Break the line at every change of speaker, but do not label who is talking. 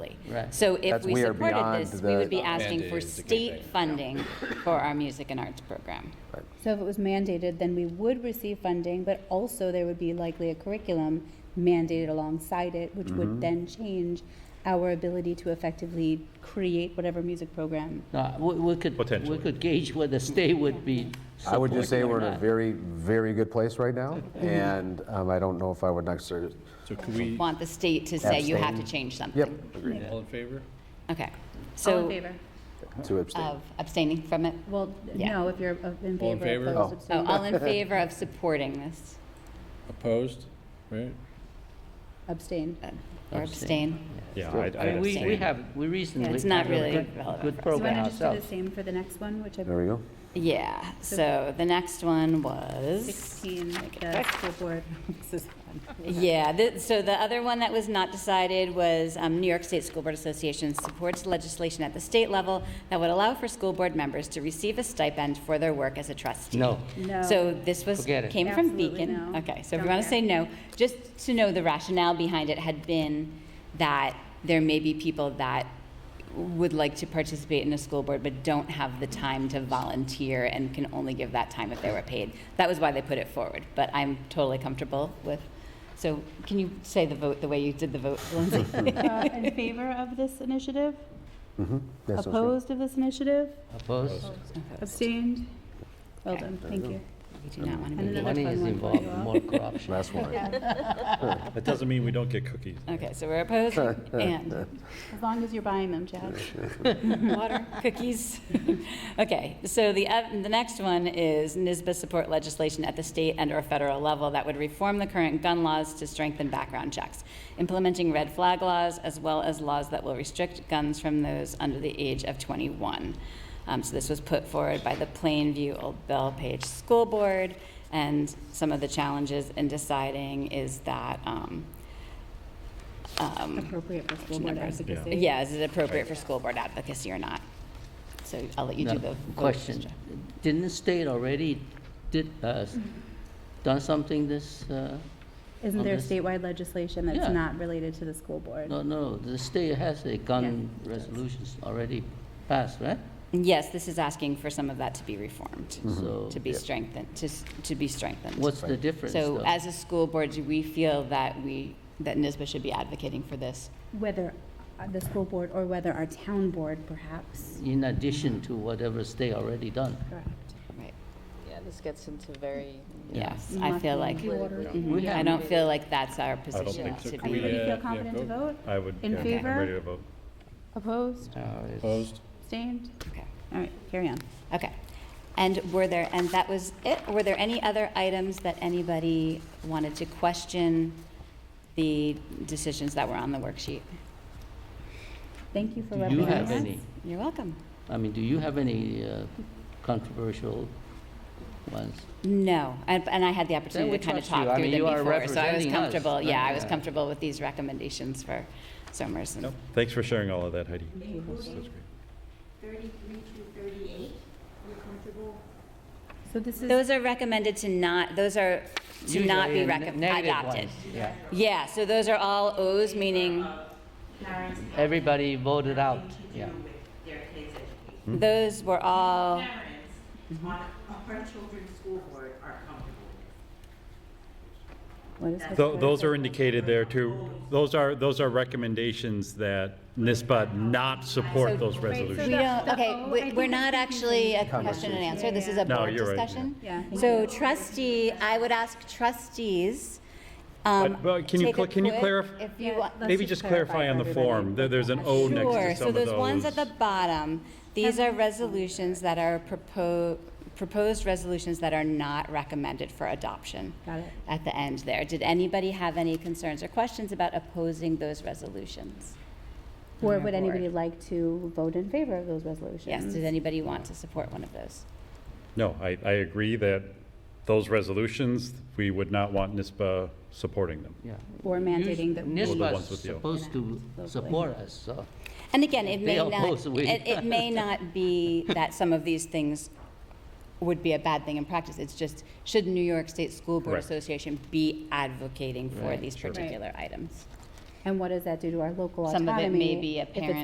Right.
So if
That's-
we
we are
supported
beyond
this, we
the- uh,
would be asking for
Mandated to keep
state
it.
funding for our music and arts program.
So if it was mandated, then we would receive funding, but also there would be likely a curriculum mandated alongside it, which would then change our ability to effectively create whatever music program.
No, we, we could, we
Potentially.
could gauge whether state would be
I would just say
supporting or
we're in a
not.
very, very good place right now, and um, I don't know if I would necessarily,
So could we,
Want the state to say you have to
Abstain.
change
yep,
something.
agreed,
all in favor?
Okay.
All in
So
favor?
to abstain.
Of abstaining from it?
Well,
Yeah.
no, if you're uh, in
All in
favor,
favor?
opposed,
Oh.
So
abstained.
all in favor of supporting this?
Opposed? Right?
Abstain.
uh, Or
Abstain.
abstain?
Yeah,
I'd-
I mean, we, we have, we recently.
it's not
had a
really
good-
relevant
Good
for us.
Do you want
program
to just do
ourselves.
the same for the next one, which I
There we go.
Yeah, so the next one was?
16,
Make it
the
quick.
school board. This is-
Yeah, th- so the other one that was not decided was um, New York State School Board Association supports legislation at the state level that would allow for school board members to receive a stipend for their work as a trustee.
No.
No.
So this was,
Forget it.
came from
Absolutely
Beacon.
no.
Okay, so if
Don't
you want to
care.
say no, just to know the rationale behind it had been that there may be people that would like to participate in a school board but don't have the time to volunteer and can only give that time if they were paid. That was why they put it forward, but I'm totally comfortable with, so can you say the vote the way you did the vote, Lindsay?
Uh, In favor of this initiative?
Mhm. That sounds good.
Opposed of this initiative?
Opposed?
Abstained? Well
Okay.
done, thank you.
We do not want to
And
be.
another
Money is
fun one for
involved,
you all.
more corruption.
Last one.
That doesn't mean we don't get cookies.
Okay, so we're opposed
Uh,
and
As long as you're buying them, Chad.
Water, cookies. Okay, so the, oth- the next one is NISBA support legislation at the state and/or federal level that would reform the current gun laws to strengthen background checks, implementing red flag laws, as well as laws that will restrict guns from those under the age of 21. Um, So this was put forward by the Plainview Old Page School Board, and some of the challenges in deciding is that, um, um,
Appropriate for school
Action
board
numbers.
advocacy.
yeah, is it appropriate for school board advocacy or not? So I'll let you do
Now,
the. vote,
Question,
Sandra.
didn't the state already did, uh, s- done something this, uh,
Isn't there
on this-
statewide legislation that's
Yeah.
not related to the school board?
no, no, the state has a gun resolutions already passed, right?
Yes, this is asking for some of that to be reformed,
So
to be strengthened, to, s- to be strengthened.
what's the difference
So
though?
as a school board, do we feel that we, that NISBA should be advocating for this?
Whether uh, the school board or whether our town board perhaps?
In addition to whatever state already done.
Correct.
Right.
Yeah, this gets into very.
Yes, I feel like,
We
I
have-
don't feel like that's our
I don't
position
think so.
to
Could we,
be.
Everybody
uh,
feel
yeah,
confident to vote?
I would,
In
yeah, I'm
favor?
ready to vote.
Opposed?
No, it's-
Opposed?
Abstained?
Okay.
All right, carry on.
Okay. And were there, and that was it? Were there any other items that anybody wanted to question the decisions that were on the worksheet?
Thank you for
Do you
representing us.
have any?
You're welcome.
I mean, do you have any uh, controversial ones?
No, and and I had the opportunity
we
to kind of
trust you.
talk
I
through
mean,
them
you are
before, so I was
representing us.
comfortable, yeah, I was
Yeah.
comfortable with these recommendations for Somers and
No. Thanks for sharing all of that, Heidi. That's
Including
that's great.
33 to 38, you're comfortable?
So this is,
Those are recommended to not, those are to not
Usually,
be
uh,
recom-
ne-
adopted.
negative ones, yeah.
Yeah, so those are all Os, meaning
Parents
Everybody voted out, yeah.
with their kids' education.
Hmm.
those were all,
Parents on our children's school board are comfortable with
what is
it.
it?
Tho- Those are indicated there too. Those are, those are recommendations that NISBA not support those
we
resolutions.
don't,
the
okay,
O, Oh, I
we-
think
we're not
that's
actually a question and answer, this is a
No,
board
you're right, yeah.
discussion.
Yeah.
So trustee, I would ask trustees, um,
But- but can you
take a
cl- can you
quick-
clarif-
If you want.
Let's
Maybe just clarify on
for
the
everybody.
form, that there's an O next
Sure,
to some
so
of those.
those ones at the bottom, these are resolutions that are proposed, proposed resolutions that are not recommended for adoption.
Got it.
At the end there. Did anybody have any concerns or questions about opposing those resolutions?
Or would
Yeah.
anybody like to vote in favor of those resolutions?
Yes, did anybody want to support one of those?
No, I, I agree that those resolutions, we would not want NISBA supporting them.
Yeah.
Or mandating that we-
Well, the
NISBA's
ones with the O.
supposed to support us, so.
And again, it may
They
not,
oppose we.
it, it may not be that some of these things would be a bad thing in practice. It's just, should New York State School Board
Correct.
Association be advocating for
Right,
these
Right.
particular items? And what does that do to our local
Some of
autonomy?
it may be a
if it's
parent